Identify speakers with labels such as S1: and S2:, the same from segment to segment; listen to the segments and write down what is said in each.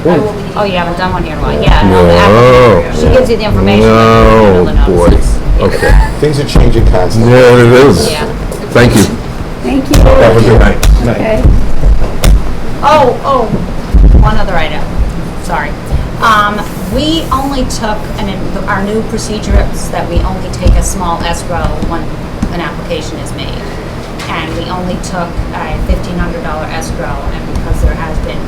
S1: Oh, you haven't done one here in a while, yeah. no, the
S2: Whoa.
S1: app- She gives you the information.
S2: Oh,
S1: but you don't know
S2: boy.
S1: the notices. Yeah.
S2: Okay.
S3: Things are changing constantly.
S2: Yeah, it is.
S1: Yeah.
S2: Thank you.
S4: Thank
S2: Have a
S4: you.
S2: good night.
S4: Okay.
S1: Oh, oh, one other item, sorry. Um, we only took, and in our new procedure is that we only take a small escrow when an application is made. And we only took a fifteen hundred dollar escrow, and because there has been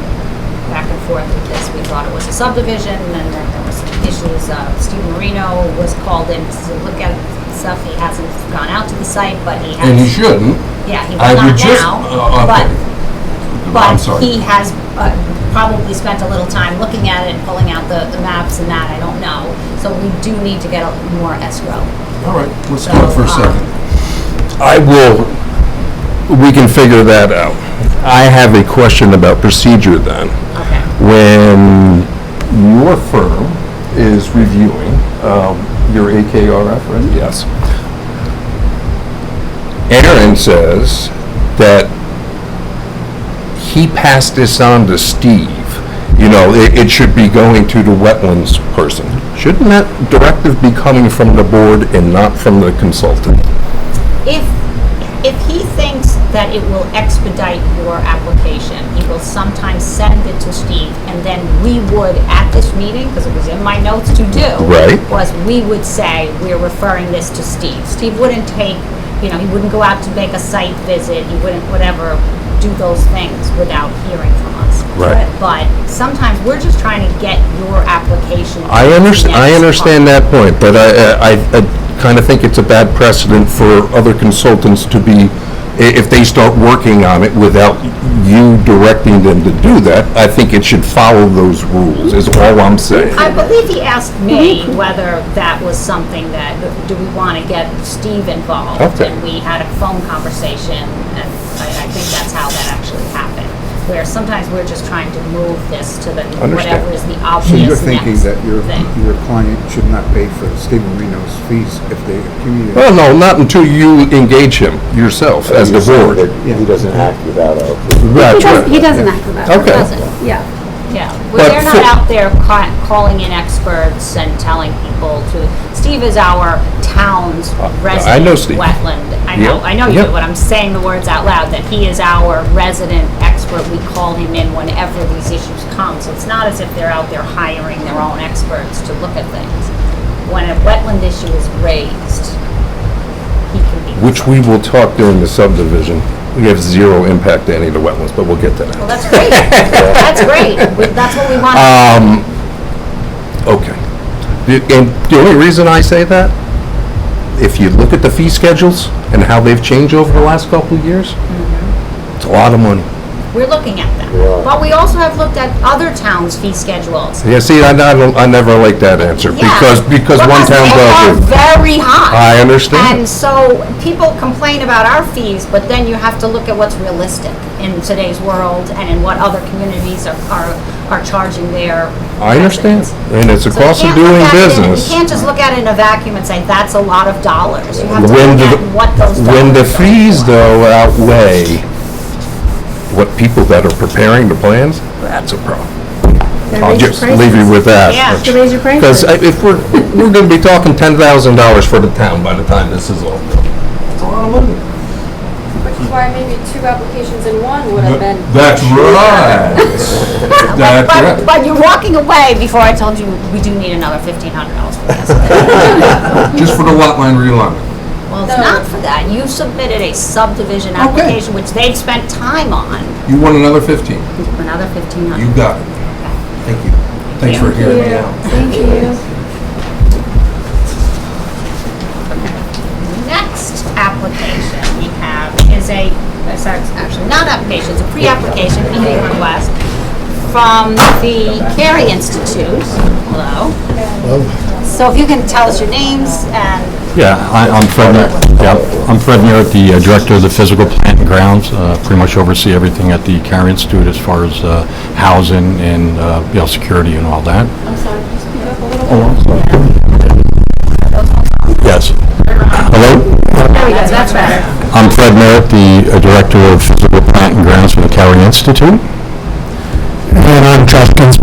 S1: back and forth with this, we thought it was a subdivision, and then there was some issues, uh, Steve Marino was called in to look at stuff, he hasn't gone out to the site, but he has.
S5: And he shouldn't.
S1: Yeah, he
S5: I
S1: will
S5: would
S1: not
S5: just-
S1: now,
S5: uh,
S1: but,
S5: okay. I'm
S1: but
S5: sorry.
S1: he has uh, probably spent a little time looking at it, pulling out the, the maps and that, I don't know. So we do need to get a- more escrow.
S5: All right, let's talk for a
S1: So,
S4: Uh-huh.
S1: um,
S5: second.
S2: I will, we can figure that out. I have a question about procedure then.
S1: Okay.
S2: When your firm is reviewing um, your AKRF, right? Yes. Aaron says that he passed this on to Steve. You know, it, it should be going to the wetlands person. Shouldn't that directive be coming from the board and not from the consultant?
S1: If, if he thinks that it will expedite your application, he will sometimes send it to Steve, and then we would, at this meeting, because it was in my notes to do.
S2: Right.
S1: Was we would say, we're referring this to Steve. Steve wouldn't take, you know, he wouldn't go out to make a site visit, he wouldn't, whatever, do those things without hearing from us.
S2: Right.
S1: But sometimes, we're just trying to get your application.
S2: I understand, I
S1: next
S2: understand
S1: month.
S2: that point, but I, I, I kind of think it's a bad precedent for other consultants to be, i- if they start working on it without you directing them to do that, I think it should follow those rules, is all I'm saying.
S1: I believe he asked me whether that was something that, do we want to get Steve involved?
S2: Okay.
S1: And we had a phone conversation, and I, I think that's how that actually happened. Where sometimes we're just trying to move this to the,
S2: Understand.
S1: whatever is the
S6: So you're
S1: obvious
S6: thinking
S1: next
S6: that your,
S1: thing.
S6: your client should not pay for Steve Marino's fees if they accumulate?
S2: Well, no, not until you engage him yourself as the
S3: You're saying
S2: board.
S3: that He doesn't act without our approval.
S4: He
S2: That's
S4: does-
S2: right.
S4: He doesn't act without it.
S2: Okay.
S4: Doesn't, yeah.
S1: Yeah, well,
S2: But
S1: they're
S2: for-
S1: not out there ca- calling in experts and telling people to, Steve is our town's
S2: Uh, I know
S1: resident
S2: Steve.
S1: wetland. I
S2: Yep,
S1: know, I know you,
S2: yep.
S1: do, but I'm saying the words out loud, that he is our resident expert. We call him in whenever these issues come, so it's not as if they're out there hiring their own experts to look at things. When a wetland issue is raised, he can be.
S2: Which we will talk during the subdivision. We have zero impact to any of the wetlands, but we'll get to
S1: Well, that's
S2: that.
S1: great, that's great, We- that's what we want.
S2: Okay. The- And the only reason I say that, if you look at the fee schedules and how they've changed over the last couple of years,
S1: Mm-hmm.
S2: it's a lot of money.
S1: We're looking at them.
S3: Yeah.
S1: But we also have looked at other towns' fee schedules.
S2: Yeah, see, I, I don't- I never like that answer,
S1: Yeah,
S2: because, because one town does
S1: Because
S2: it.
S1: they are very high.
S2: I
S1: And
S2: understand.
S1: so people complain about our fees, but then you have to look at what's realistic in today's world and in what other communities are, are, are charging their
S2: I understand,
S1: residents.
S2: and it's a
S1: So you
S2: cost of
S1: can't look
S2: doing
S1: at it in-
S2: business.
S1: You can't just look at it in a vacuum and say, that's a lot of dollars. You have to
S2: When
S1: look
S2: the,
S1: at what those dollars are.
S2: when the fees
S1: for.
S2: though outweigh what people that are preparing the plans, that's a problem.
S4: Gotta
S2: I'll
S4: raise your
S2: just leave you with
S4: prices.
S2: that.
S1: Yeah.
S4: To raise your
S2: Because
S4: prices.
S2: if we're, we're gonna be talking ten thousand dollars for the town by the time this is all done. That's a lot of money.
S7: Which is why maybe two applications in one would have been.
S5: That's right. That's
S1: But,
S5: right.
S1: but you're walking away before I told you, we do need another fifteen hundred dollars for this.
S5: Just for the lot line realignment.
S1: Well, it's not for that. You submitted a subdivision application, which they've spent time on,
S5: You want another 15.
S1: for another fifteen
S5: You
S1: hundred.
S5: got it. Thank you. Thanks for hearing me out.
S4: Thank you. Next.
S1: Application we have is a, that's actually not application, it's a pre-application meeting request from the Carey Institute. Hello. So if you can tell us your names and
S8: Yeah, I- I'm Fred, Mer- yeah, I'm Fred Merritt, the uh, Director of the Physical Plant and Grounds. Uh, Pretty much oversee everything at the Carey Institute as far as uh, housing and, uh, you know, security and all that. Oh,
S7: I'm sorry, could you speak up a little bit?
S8: Yes. Hello?
S1: that's better.
S8: I'm Fred Merritt, the uh, Director of Physical Plant and Grounds for the Carey Institute. And I'm Josh